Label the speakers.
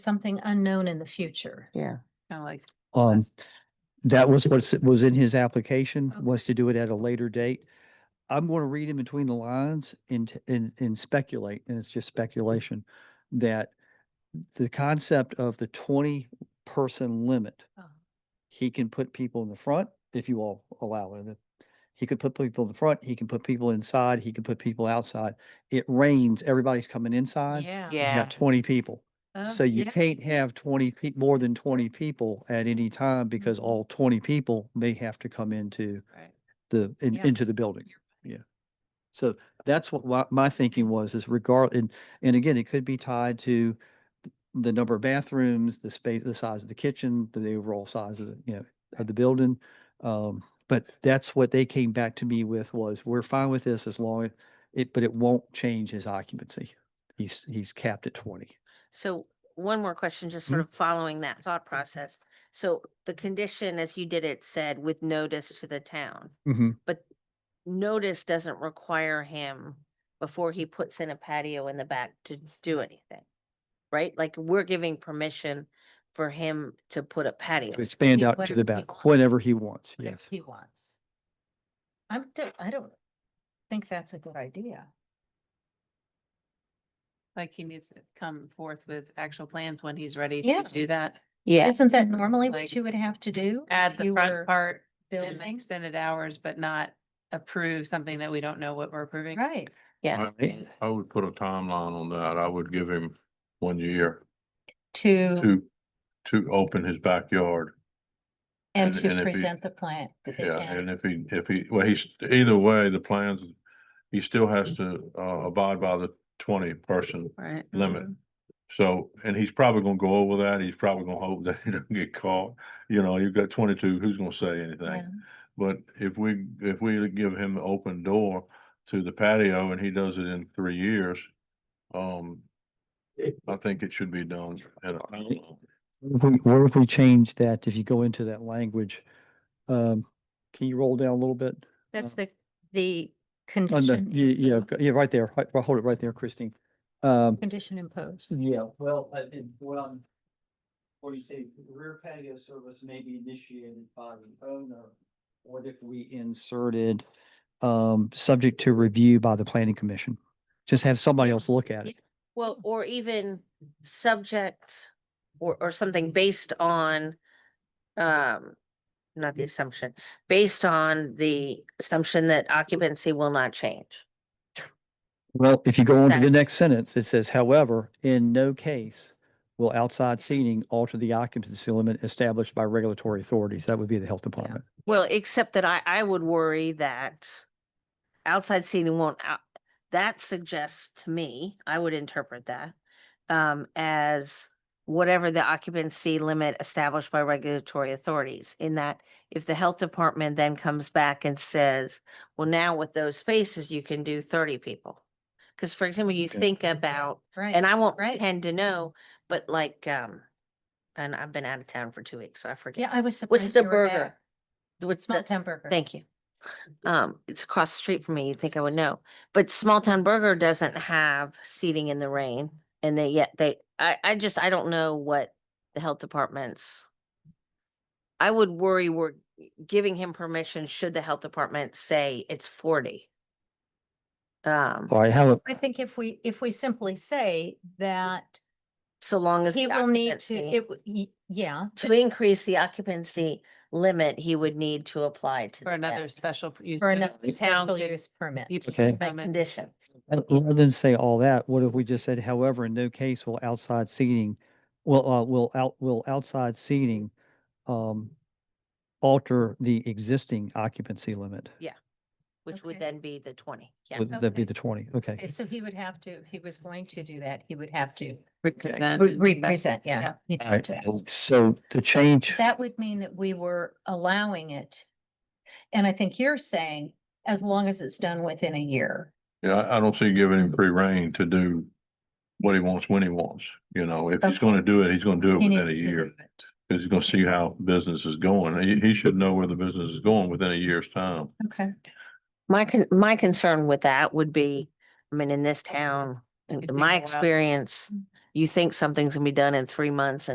Speaker 1: something unknown in the future.
Speaker 2: Yeah,
Speaker 1: Kind of like,
Speaker 3: Um,
Speaker 1: Yes.
Speaker 3: that was what was in his application,
Speaker 1: Okay.
Speaker 3: was to do it at a later date. I'm going to read in between the lines and, t- and, and speculate, and it's just speculation, that the concept of the twenty person limit,
Speaker 1: oh,
Speaker 3: he can put people in the front if you all allow it. He could put people in the front, he can put people inside, he can put people outside. It rains, everybody's coming inside.
Speaker 1: Yeah.
Speaker 3: You
Speaker 2: yeah,
Speaker 3: got twenty people.
Speaker 1: Oh,
Speaker 3: So you
Speaker 1: yeah.
Speaker 3: can't have twenty pe- more than twenty people at any time because
Speaker 1: Mhm.
Speaker 3: all twenty people may have to come into
Speaker 1: Right.
Speaker 3: the, in-
Speaker 1: Yeah.
Speaker 3: into the building.
Speaker 1: You're
Speaker 3: So that's what wa- my thinking was is regard, and, and again, it could be tied to th- the number of bathrooms, the space, the size of the kitchen, the overall size of, the you know, of the building. Um, but that's what they came back to me with was, we're fine with this as long as it, but it won't change his occupancy. He's, he's capped at twenty.
Speaker 4: So one more question, just sort of following that thought process. So the condition, as you did it, said with notice to the town.
Speaker 3: Mm-hmm.
Speaker 4: Notice doesn't require him before he puts in a patio in the back to do anything. Right? Like we're giving permission for him to put a patio.
Speaker 3: to expand
Speaker 1: he-
Speaker 3: out to
Speaker 1: whatever
Speaker 3: the
Speaker 1: he
Speaker 3: back
Speaker 1: wants.
Speaker 3: whenever he wants,
Speaker 1: whatever
Speaker 3: yes.
Speaker 1: He wants. I'm, don't- I don't think that's a good idea.
Speaker 5: Like he needs to come forth with actual plans when he's ready
Speaker 1: Yeah.
Speaker 5: to do that.
Speaker 4: Yeah,
Speaker 1: Isn't that normally what
Speaker 5: Like,
Speaker 1: you would have to do?
Speaker 5: Add
Speaker 1: if
Speaker 5: the
Speaker 1: you
Speaker 5: front
Speaker 1: were
Speaker 5: part and the
Speaker 1: Building,
Speaker 5: extended hours, but not approve something that we don't know what we're approving.
Speaker 1: right.
Speaker 4: yeah.
Speaker 3: Right.
Speaker 6: I would put a timeline on that. I would give him one year
Speaker 1: To,
Speaker 6: to, to open his backyard.
Speaker 1: and
Speaker 6: and- and if
Speaker 1: to
Speaker 6: he-
Speaker 1: present the plan to the
Speaker 6: Yeah,
Speaker 1: town.
Speaker 6: and if he, if he, well, he's, either way, the plans, he still has to, uh, abide by the twenty person
Speaker 4: Right.
Speaker 6: limit.
Speaker 1: Mm-hmm.
Speaker 6: So, and he's probably gonna go over that. He's probably gonna hope that he don't get caught. You know, you've got twenty-two, who's gonna say anything? But if we, if we give him the open door to the patio and he does it in three years, um, I think it should be done at a timeline.
Speaker 3: What if we- What if we change that, if you go into that language? Um, can you roll down a little bit?
Speaker 1: That's the, the
Speaker 3: On the,
Speaker 1: condition.
Speaker 3: yeah, yeah, yeah, right there, Hi- hold it right there, Christine. Um,
Speaker 1: Condition imposed.
Speaker 3: Yeah, well, uh, and what I'm, what you say, rear patio service may be initiated by the owner. What if we inserted, um, subject to review by the planning commission? Just have somebody else look at it.
Speaker 4: Well, or even subject or, or something based on, um, not the assumption, based on the assumption that occupancy will not change.
Speaker 3: Well, if you go on to the
Speaker 4: Exactly.
Speaker 3: next sentence, it says, however, in no case will outside seating alter the occupancy limit established by regulatory authorities. That would be the health department.
Speaker 4: Well, except that I, I would worry that outside seating won't out, that suggests to me, I would interpret that um, as whatever the occupancy limit established by regulatory authorities, in that if the health department then comes back and says, well, now with those spaces, you can do thirty people. Because for example, you
Speaker 3: Okay.
Speaker 4: think about
Speaker 1: Right.
Speaker 4: and I won't
Speaker 1: right.
Speaker 4: pretend to know, but like, um, and I've been out of town for two weeks, so I
Speaker 1: Yeah,
Speaker 4: forget.
Speaker 1: I was surprised.
Speaker 4: What's the
Speaker 1: you were
Speaker 4: burger?
Speaker 1: back.
Speaker 4: What's
Speaker 1: Small
Speaker 4: the,
Speaker 1: town burger.
Speaker 4: thank you. Um, it's across the street from me. You'd think I would know, but Small Town Burger doesn't have seating in the rain. And they, yet they, I, I just, I don't know what the health department's. I would worry we're giving him permission should the health department say it's forty. Um,
Speaker 3: All right, how,
Speaker 1: I think if we, if we simply say that
Speaker 4: so long as.
Speaker 1: he
Speaker 4: the
Speaker 1: will need to,
Speaker 4: occupancy-
Speaker 1: it, w- y- yeah,
Speaker 4: to increase the occupancy limit, he would need to apply to.
Speaker 5: For
Speaker 4: that
Speaker 5: another special. use
Speaker 1: for
Speaker 5: permit.
Speaker 1: another
Speaker 5: The town
Speaker 1: special
Speaker 5: could
Speaker 1: use permit.
Speaker 5: keep the
Speaker 3: Okay.
Speaker 5: permit.
Speaker 4: Condition.
Speaker 3: Uh, Rather than say all that, what if we just said, however, in no case will outside seating, will, uh, will out, will outside seating, um, alter the existing occupancy limit?
Speaker 4: Which
Speaker 1: Okay.
Speaker 4: would then be the twenty, yeah.
Speaker 3: Would that
Speaker 1: Okay.
Speaker 3: be the twenty?
Speaker 1: Okay,
Speaker 3: Okay.
Speaker 1: So he would have to, if he was going to do that, he would have to
Speaker 5: Represent.
Speaker 1: re- represent, yeah.
Speaker 5: yeah.
Speaker 1: he'd have
Speaker 3: All right, Oh,
Speaker 1: to ask.
Speaker 3: So to change,
Speaker 1: That would mean that we were allowing it. And I think you're saying, as long as it's done within a year.
Speaker 6: Yeah, I, I don't see giving him free rein to do what he wants when he wants, you know, if he's
Speaker 1: Okay.
Speaker 6: gonna do it, he's gonna do it
Speaker 1: he
Speaker 6: within a
Speaker 1: needs to
Speaker 6: year.
Speaker 1: do it.
Speaker 6: Cause he's gonna see how business is going. He, he should know where the business is going within a year's time.
Speaker 1: Okay.
Speaker 4: My con- my concern with that would be, I mean, in this town,
Speaker 5: It'd
Speaker 4: in
Speaker 5: take a
Speaker 4: my
Speaker 5: while.
Speaker 4: experience, you think something's gonna be done in three months and